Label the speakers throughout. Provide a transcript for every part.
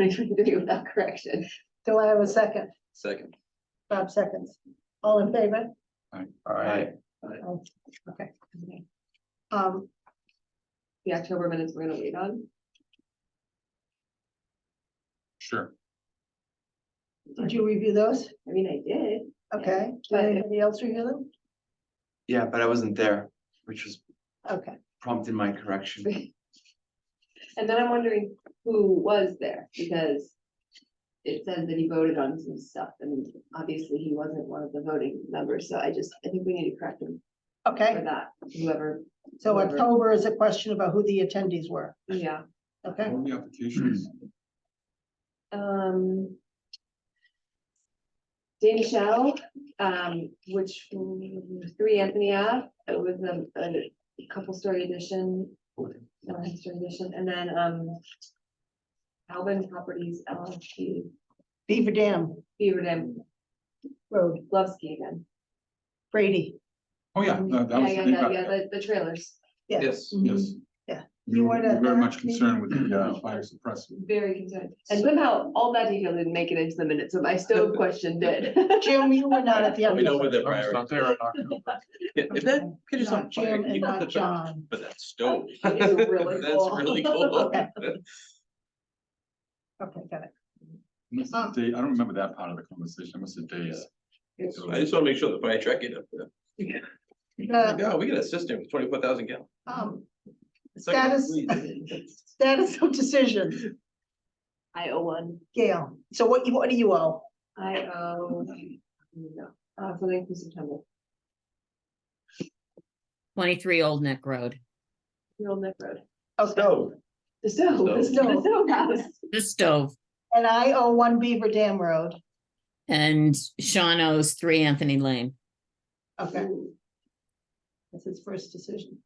Speaker 1: 2023 without correction.
Speaker 2: Do I have a second?
Speaker 3: Second.
Speaker 2: Five seconds. All in favor?
Speaker 3: All right.
Speaker 2: Okay. Um,
Speaker 1: The October minutes we're gonna wait on.
Speaker 3: Sure.
Speaker 2: did you review those?
Speaker 1: I mean, I did.
Speaker 2: Okay. Did
Speaker 1: But-
Speaker 2: anybody else review them?
Speaker 4: Yeah, but I wasn't there, which was
Speaker 2: Okay.
Speaker 4: prompted my correction.
Speaker 1: And then I'm wondering who was there, because it says that he voted on some stuff, and obviously he wasn't one of the voting members, so I just, I think we need to correct him for
Speaker 2: Okay,
Speaker 1: that, whoever,
Speaker 2: so October is a question about who the attendees were.
Speaker 1: yeah,
Speaker 2: Okay,
Speaker 3: Only applications.
Speaker 1: um. Danny Shell, um, which, mm, three Anthony Ave, it was a, a couple story addition, no history addition, and then, um. Alvin Properties LLC,
Speaker 2: Beaver Dam
Speaker 1: Beaver Dam,
Speaker 2: Road,
Speaker 1: Glovsky again.
Speaker 2: Brady.
Speaker 3: Oh, yeah, no,
Speaker 1: Yeah,
Speaker 3: that was. the
Speaker 1: yeah,
Speaker 3: thing
Speaker 1: yeah,
Speaker 3: about-
Speaker 1: yeah, the, the trailers,
Speaker 3: Yes,
Speaker 1: Mhm.
Speaker 3: yes.
Speaker 2: Yeah.
Speaker 3: We
Speaker 2: You
Speaker 3: were
Speaker 2: weren't at
Speaker 3: very
Speaker 2: that
Speaker 3: much
Speaker 2: meeting?
Speaker 3: concerned with the uh, fire suppressor.
Speaker 1: very concerned, and somehow all that detail didn't make it into the minutes, so my stove question did.
Speaker 2: Jim, you were not at the.
Speaker 5: We know where they're
Speaker 3: I was not there in October.
Speaker 5: Yeah, If that pitch is
Speaker 2: Not
Speaker 5: on fire,
Speaker 2: Jim and
Speaker 5: you put the
Speaker 2: not
Speaker 5: fire,
Speaker 2: John.
Speaker 5: but that stove.
Speaker 1: It is really cool.
Speaker 5: That's really cool.
Speaker 2: Okay. Okay, got it.
Speaker 3: Must have day- I don't remember that part of the conversation. I must have days.
Speaker 5: I just wanna make sure the fire truck get up there.
Speaker 2: The,
Speaker 5: Yeah, we got a system with twenty-four thousand gallon.
Speaker 2: um,
Speaker 5: It's like-
Speaker 2: status, status of decision,
Speaker 1: I owe one,
Speaker 2: Gail. So what you, what do you owe?
Speaker 1: I owe, no, uh, something from September,
Speaker 6: twenty-three Old Neck Road.
Speaker 1: real Neck Road.
Speaker 2: Okay,
Speaker 5: Stove.
Speaker 1: The stove, the stove, the
Speaker 2: Stove.
Speaker 1: stove house,
Speaker 6: The stove
Speaker 2: and I owe one Beaver Dam Road.
Speaker 6: and Sean owes three Anthony Lane.
Speaker 2: Okay. That's his first decision.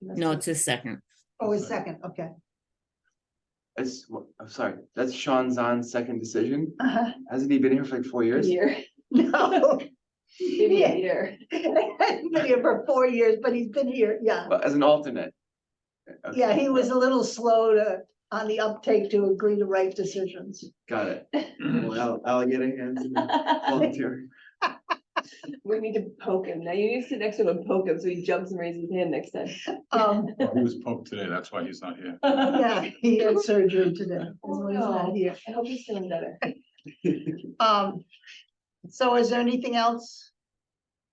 Speaker 6: No, it's his second.
Speaker 2: Oh, his second, okay.
Speaker 4: That's, wha- I'm sorry, that's Sean Zahn's second decision.
Speaker 2: Uh-huh.
Speaker 4: Hasn't he been here for like four
Speaker 1: a
Speaker 4: years?
Speaker 1: year,
Speaker 2: No.
Speaker 1: maybe
Speaker 2: Yeah.
Speaker 1: a year,
Speaker 2: He's Been here for four years, but he's been here, yeah.
Speaker 4: Well, as an alternate. Uh, Okay,
Speaker 2: Yeah, he was a little slow to, on the uptake to agree to right decisions.
Speaker 4: Got it.
Speaker 5: Mm-hmm.
Speaker 4: Well, I'll, I'll get a hand in the volunteer.
Speaker 1: we need to poke him, now you need to sit next to him and poke him, so he jumps and raises his hand next time.
Speaker 2: Um,
Speaker 3: Well, oh, He was poked today. That's why he's not here.
Speaker 2: yeah, he had surgery today. That's why he's not here.
Speaker 1: I hope he's feeling better.
Speaker 2: Um, so is there anything else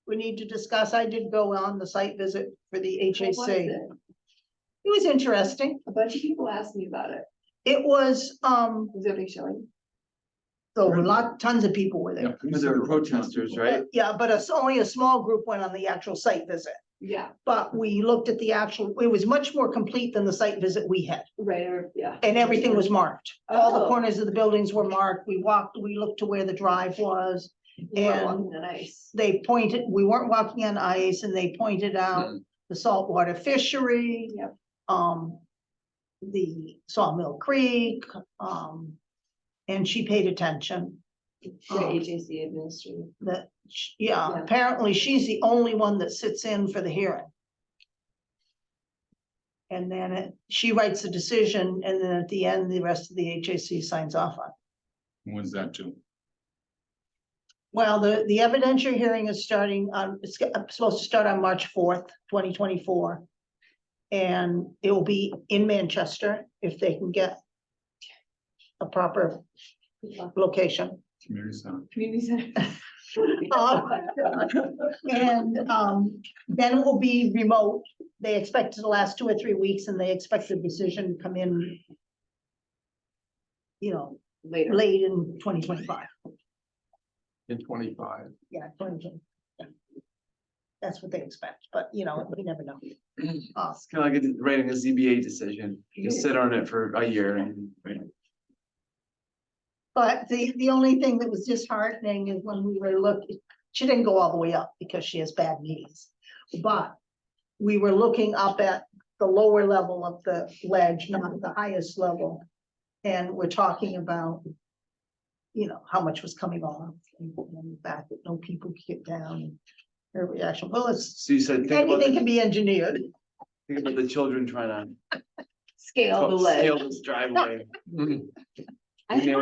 Speaker 2: we need to discuss? I did go on the site visit for the
Speaker 1: What was
Speaker 2: HAC. It
Speaker 1: it?
Speaker 2: was interesting.
Speaker 1: A bunch of people asked me about it,
Speaker 2: It was, um,
Speaker 1: was there a big showing?
Speaker 2: a lot, tons of people were
Speaker 3: Yeah,
Speaker 2: there.
Speaker 3: pretty
Speaker 4: But there were
Speaker 3: separate from that.
Speaker 4: protesters, right?
Speaker 2: Yeah, but it's only a small group went on the actual site visit.
Speaker 1: Yeah,
Speaker 2: But we looked at the actual, it was much more complete than the site visit we had,
Speaker 1: right, or- yeah.
Speaker 2: and everything was marked. All the
Speaker 1: Oh.
Speaker 2: corners of the buildings were marked, we walked, we looked to where the drive was.
Speaker 1: We weren't
Speaker 2: and-
Speaker 1: walking on ice.
Speaker 2: They pointed, we weren't walking on ice, and they pointed out the saltwater fishery.
Speaker 1: Mm. Yep.
Speaker 2: Um, the Sawmill Creek, um, and she paid attention.
Speaker 1: The
Speaker 2: Oh.
Speaker 1: HAC administrator.
Speaker 2: That, sh- yeah,
Speaker 1: Yeah.
Speaker 2: apparently she's the only one that sits in for the hearing. And then it, she writes the decision and then at the end, the rest of the HAC signs off on. it.
Speaker 3: When Was that too?
Speaker 2: Well, the, the evidentiary hearing is starting on, it's g- supposed to start on March fourth, twenty twenty-four. And it will be in Manchester if they can get a proper location.
Speaker 3: Community center.
Speaker 1: Community center.
Speaker 2: Oh. And um, then it will be remote. They expect it to last two or three weeks and they expect the decision to come in. You know,
Speaker 1: Later.
Speaker 2: late in twenty twenty-five,
Speaker 5: In twenty-five.
Speaker 2: yeah, twenty twenty. That's what they expect, but you know, we never know. Uh,
Speaker 4: It's kind of like writing a ZBA decision. You sit on it for a year and.
Speaker 2: But the, the only thing that was disheartening is when we were looking, she didn't go all the way up because she has bad knees. But we were looking up at the lower level of the ledge, not the highest level. And we're talking about, you know, how much was coming off and putting on the back, that no people could get down. Her reaction, well, it's,
Speaker 4: So you said, think about,
Speaker 2: anything
Speaker 4: the-
Speaker 2: can be engineered.
Speaker 4: think about the children trying to.
Speaker 1: Scale the
Speaker 4: scale
Speaker 1: ledge.
Speaker 4: this Driveway.
Speaker 1: I-
Speaker 4: Email